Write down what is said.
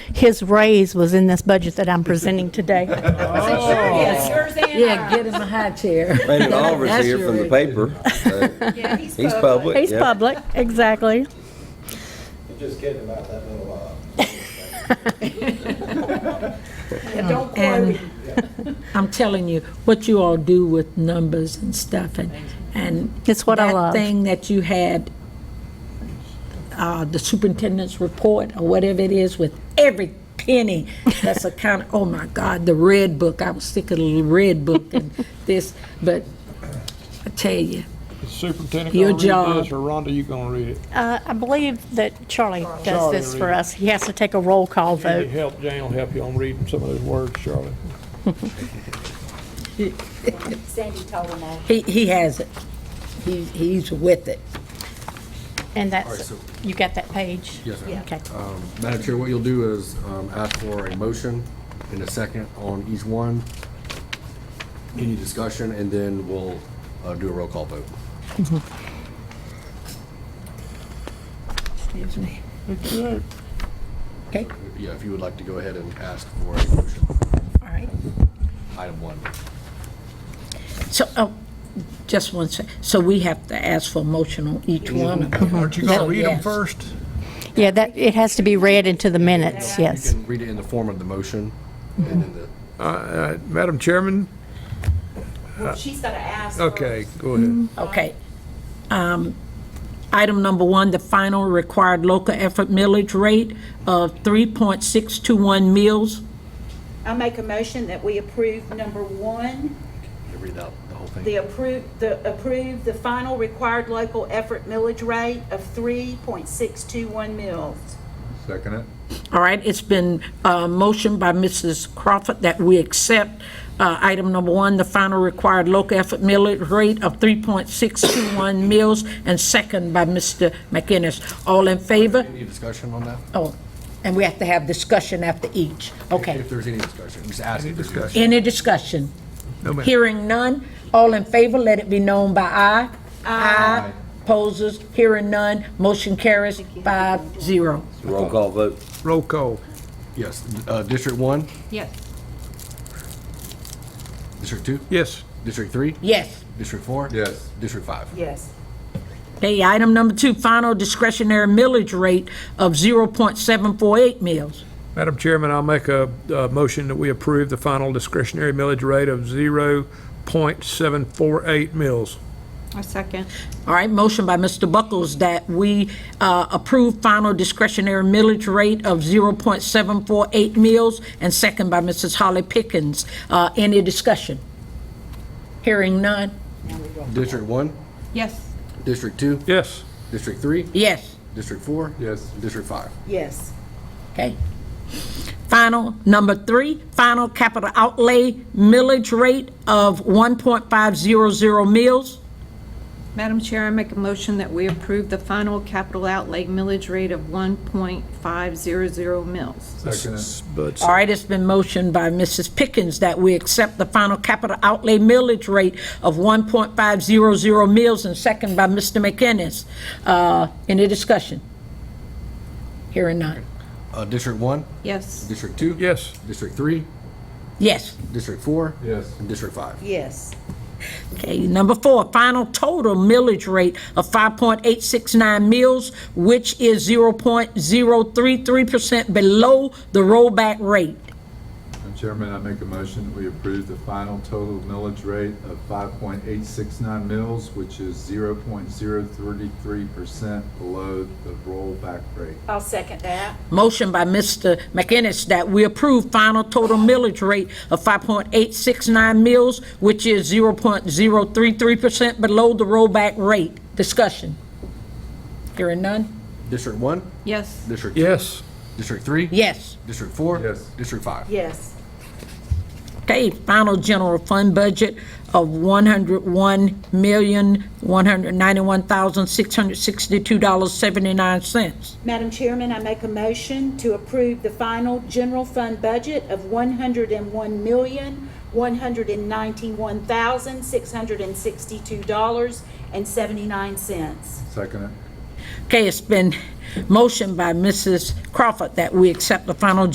his raise was in this budget that I'm presenting today. Yeah, get him a high chair. Raymond Oliver's That's here your from the issue. paper. so Yeah, he's He's public. public. He's yeah. public, exactly. You're just kidding about that little, uh, Yeah, Don't quote And him. I'm telling you, what you all do with numbers and stuff and, and. It's what I That love. thing that you had, uh, the superintendent's report or whatever it is with every penny that's accounted, oh my God, the red book, I was sick of the little red book and this, but I tell you, Superintendent Your gonna read job. this, or Rhonda, you gonna read it? Uh, I believe that Charlie does Charlie this will for read it. us. He has to take a roll call You need Oh. vote. help, Jane will help you on reading some of those words, Charlie. Sandy told him all. he, he has it. He, he's with it. And that's, you got that page? Yes, ma'am. Uh, Okay. Madam Chair, what you'll do is um, ask for a motion and a second on each one. Any discussion, and then we'll uh, do a roll call vote. Excuse me. Okay, Yeah, if you would like to go ahead and ask for a motion, all right. item one. So, oh, just one sec, so we have to ask for a motion on each one? of them. Aren't you going So, to read them yes. first? Yeah, that, it has to be read into the minutes, yes. And read it in the form of the motion, and then the Uh, Madam Chairman? Well, she's gotta ask. Okay, go Mm-hmm. ahead. Okay. Um, Item number one, the final required local effort millage rate of 3.621 mills. I make a motion that we approve number one, read out the whole thing. the approve, the approve the final required local effort millage rate of three point six two one mils. Second it. All right, it's been uh, motioned by Mrs. Crawford that we accept uh, item number one, the final required local effort millage rate of 3.621 mills, and second by Mr. McInnes. All in favor? Any discussion on that? Oh, and we have to have discussion after each. Okay. If there's any discussion, just ask. Any discussion? Any discussion? No, ma'am. Hearing none, all in favor, let it be known by aye. Aye. Opposers, hearing none, motion carries five zero. Roll call vote. Roll call. Yes, uh, District one? Yes. District two? Yes. District three? Yes. District four? Yes. District five? Yes. Okay, item number two, final discretionary millage rate of 0.748 mills. Madam Chairman, I'll make a, uh motion that we approve the final discretionary millage rate of 0.748 mills. A second. All right, motion by Mr. Buckles that we uh, approve final discretionary millage rate of 0.748 mills, and second by Mrs. Holly Pickens. Uh, Any discussion? Hearing none, District one? Yes. District two? Yes. District three? yes. District four? Yes. District five? Yes. Okay. Final, number three, final capital outlay millage rate of 1.500 mills. Madam Chair, I make a motion that we approve the final capital outlay millage rate of 1.500 mills. But All right, it's been motioned by Mrs. Pickens that we accept the final capital outlay millage rate of 1.500 mills, and second by Mr. McInnes. Uh, Any discussion? Hearing none. Uh, District one? Yes. District two? Yes. District three? Yes. District four? Yes. And District five? Yes. Okay, number four, final total millage rate of 5.869 mills, which is 0.033% below the rollback rate. Madam Chairman, I make a motion that we approve the final total millage rate of 5.869 mills, which is 0.033% below the rollback rate. I'll second that. Motion by Mr. McInnes that we approve final total millage rate of 5.869 mills, which is 0.033% below the rollback rate. Discussion. Hearing none? District one? Yes. District two? Yes. District three? Yes. District four? Yes. District five? Yes. Okay, final general fund budget of $101,191,662.79. Madam Chairman, I make a motion to approve the final general fund budget of one hundred and one million, one hundred and ninety-one thousand, six hundred and sixty-two dollars and seventy-nine cents. Second it. Okay, it's been motioned by Mrs. Crawford that we accept the final